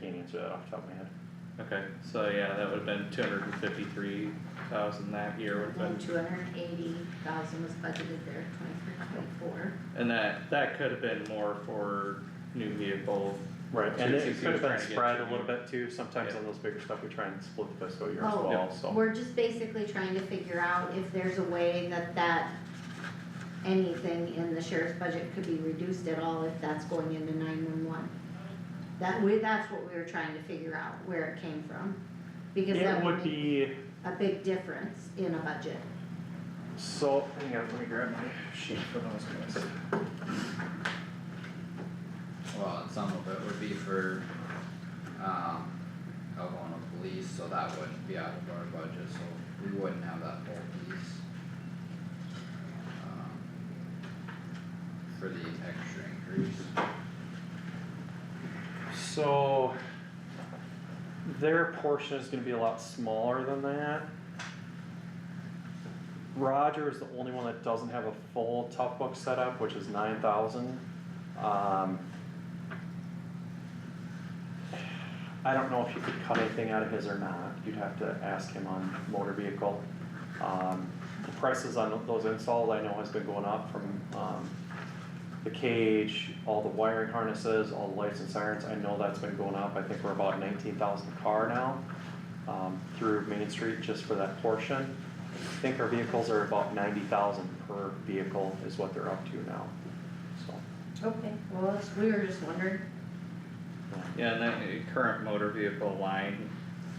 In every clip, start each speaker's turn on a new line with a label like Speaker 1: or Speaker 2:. Speaker 1: to that off the top of my head.
Speaker 2: Okay, so yeah, that would've been two hundred and fifty-three thousand that year would've been,
Speaker 3: And two hundred and eighty thousand was budgeted there, twenty-three, twenty-four.
Speaker 2: and that, that could've been more for new vehicle.
Speaker 1: Right, and it
Speaker 2: Since
Speaker 1: could
Speaker 2: you're
Speaker 1: have
Speaker 2: trying
Speaker 1: been
Speaker 2: to get
Speaker 1: spread
Speaker 2: to-
Speaker 1: a little bit too, sometimes
Speaker 2: Yeah.
Speaker 1: on those bigger stuff, we try and split the fiscal year as
Speaker 3: Oh.
Speaker 1: well, so.
Speaker 3: We're just basically trying to figure out if there's a way that that, anything in the sheriff's budget could be reduced at all if that's going into nine-one-one. That we, that's what we were trying to figure out, where it came from, because that
Speaker 1: It
Speaker 3: would
Speaker 1: would
Speaker 3: make
Speaker 1: be,
Speaker 3: a big difference in a budget.
Speaker 1: so, hang on, let me grab my sheet for those guys.
Speaker 4: Well, and some of it would be for, um, alcohol and police, so that wouldn't be out of our budget, so we wouldn't have that whole piece. um, For the extra increase,
Speaker 1: So their portion is gonna be a lot smaller than that. Roger is the only one that doesn't have a full tough book setup, which is nine thousand. Um. I don't know if you could cut anything out of his or not, you'd have to ask him on motor vehicle. Um, the prices on those installs I know has been going up from, um, the cage, all the wiring harnesses, all the lights and sirens, I know that's been going up, I think we're about nineteen thousand a car now. Um, through Main Street just for that portion, I think our vehicles are about ninety thousand per vehicle is what they're up to now, so.
Speaker 3: Okay, well, that's- we were just wondering,
Speaker 2: Yeah, and that uh, current motor vehicle line,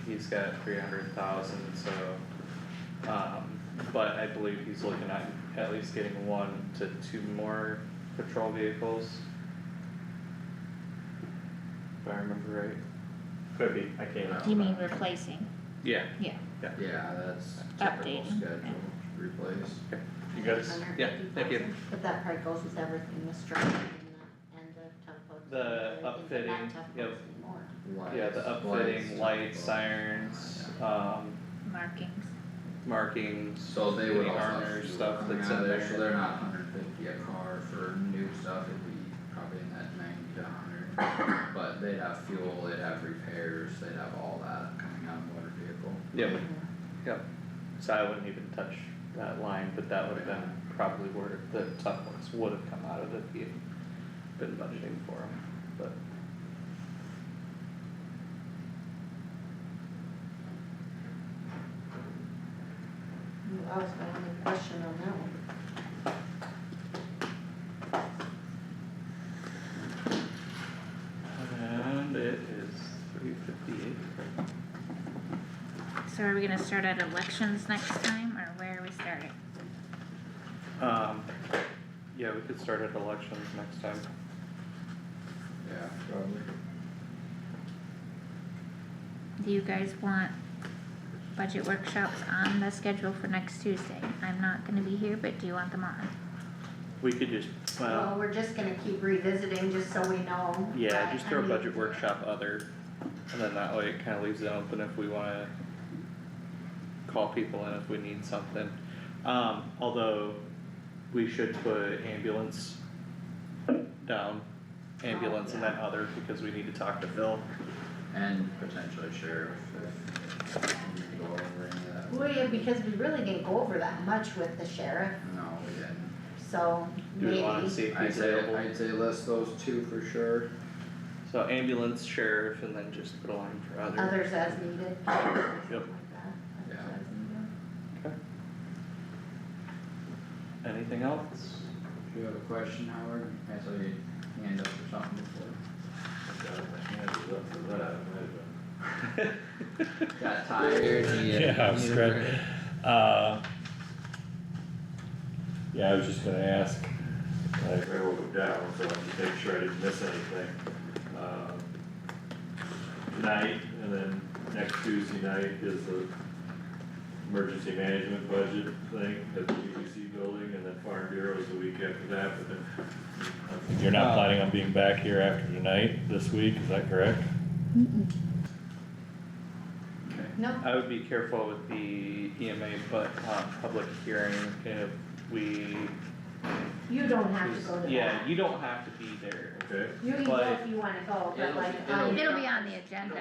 Speaker 2: he's got three hundred thousand, so, um, but I believe he's looking at at least getting one to two more patrol vehicles. If I remember right.
Speaker 1: Could be, I can't.
Speaker 4: remember.
Speaker 5: You mean replacing?
Speaker 2: Yeah,
Speaker 4: yeah, that's typical
Speaker 5: Updating, yeah.
Speaker 4: schedule, replace.
Speaker 1: You guys,
Speaker 3: hundred
Speaker 2: yeah,
Speaker 3: and
Speaker 2: thank
Speaker 3: fifty
Speaker 2: you.
Speaker 3: thousand, but that probably goes with everything, the structure and the, and the tough books.
Speaker 2: The upfitting, yep. yeah, the
Speaker 4: Lights,
Speaker 2: upfitting, lights,
Speaker 4: lights,
Speaker 2: sirens, um,
Speaker 5: Markings.
Speaker 2: markings.
Speaker 4: So they would
Speaker 2: any
Speaker 4: also have
Speaker 2: armor
Speaker 4: to do
Speaker 2: stuff
Speaker 4: work
Speaker 2: that's
Speaker 4: around
Speaker 2: in
Speaker 4: there,
Speaker 2: there.
Speaker 4: So they're not hundred fifty a car for new stuff, it'd be probably in that ninety to hundred, but they'd have fuel, they'd have repairs, they'd have all that coming out of motor vehicle.
Speaker 2: Yeah, but- So I wouldn't even touch that line, but that would have been probably where the tough ones would have come out of if you'd been budgeting for them, but.
Speaker 3: That was my only question on that one.
Speaker 2: And it is three fifty-eight.
Speaker 5: So are we gonna start at elections next time, or where are we starting?
Speaker 2: Um, yeah, we could start at elections next time.
Speaker 4: Yeah, probably.
Speaker 5: Do you guys want budget workshops on the schedule for next Tuesday? I'm not gonna be here, but do you want them on?
Speaker 2: We could just,
Speaker 3: Well,
Speaker 2: well,
Speaker 3: we're just gonna keep revisiting just so we know.
Speaker 2: yeah,
Speaker 3: I-
Speaker 2: just
Speaker 3: I
Speaker 2: throw a
Speaker 3: mean,
Speaker 2: budget workshop other, and then that way it kinda leaves it open if we wanna call people in if we need something. Um, although we should put ambulance down, ambulance
Speaker 3: Oh,
Speaker 2: and then other, because we need to talk to Phil.
Speaker 4: And potentially sheriff if we need to go over any of that.
Speaker 3: Well, yeah, because we really didn't go over that much with the sheriff,
Speaker 4: No, we didn't.
Speaker 3: so
Speaker 2: Do we
Speaker 3: maybe.
Speaker 2: wanna see if
Speaker 4: I'd
Speaker 2: he's
Speaker 4: say,
Speaker 2: available?
Speaker 4: I'd say list those two for sure.
Speaker 2: So ambulance, sheriff, and then just put a line for other.
Speaker 3: Others as needed. something like that.
Speaker 4: Yeah.
Speaker 3: Others as needed.
Speaker 2: Anything else?
Speaker 4: If you have a question, Howard, I saw your hand up or something before. Got tired, you need a-
Speaker 6: Yeah, I
Speaker 4: need
Speaker 6: was
Speaker 4: a
Speaker 6: scratching.
Speaker 4: break.
Speaker 6: Uh, Yeah, I was just gonna ask,
Speaker 7: I wrote it down, so I can make sure I didn't miss anything. Um, Tonight, and then next Tuesday night is the emergency management budget thing at the UBC building, and then Farm Bureau is the week after that, but then.
Speaker 6: you're
Speaker 2: Uh,
Speaker 6: not planning on being back here after tonight, this week, is that correct?
Speaker 2: Okay.
Speaker 3: No,
Speaker 2: I would be careful with the EMA, but, um, public hearing, if we.
Speaker 3: you don't have to go to that.
Speaker 2: Yeah, you don't have to be there.
Speaker 7: Okay.
Speaker 3: You can go
Speaker 2: but-
Speaker 3: if you wanna go, but
Speaker 4: It'll-
Speaker 3: like.
Speaker 4: it'll-
Speaker 3: um,
Speaker 5: It'll be on the agenda.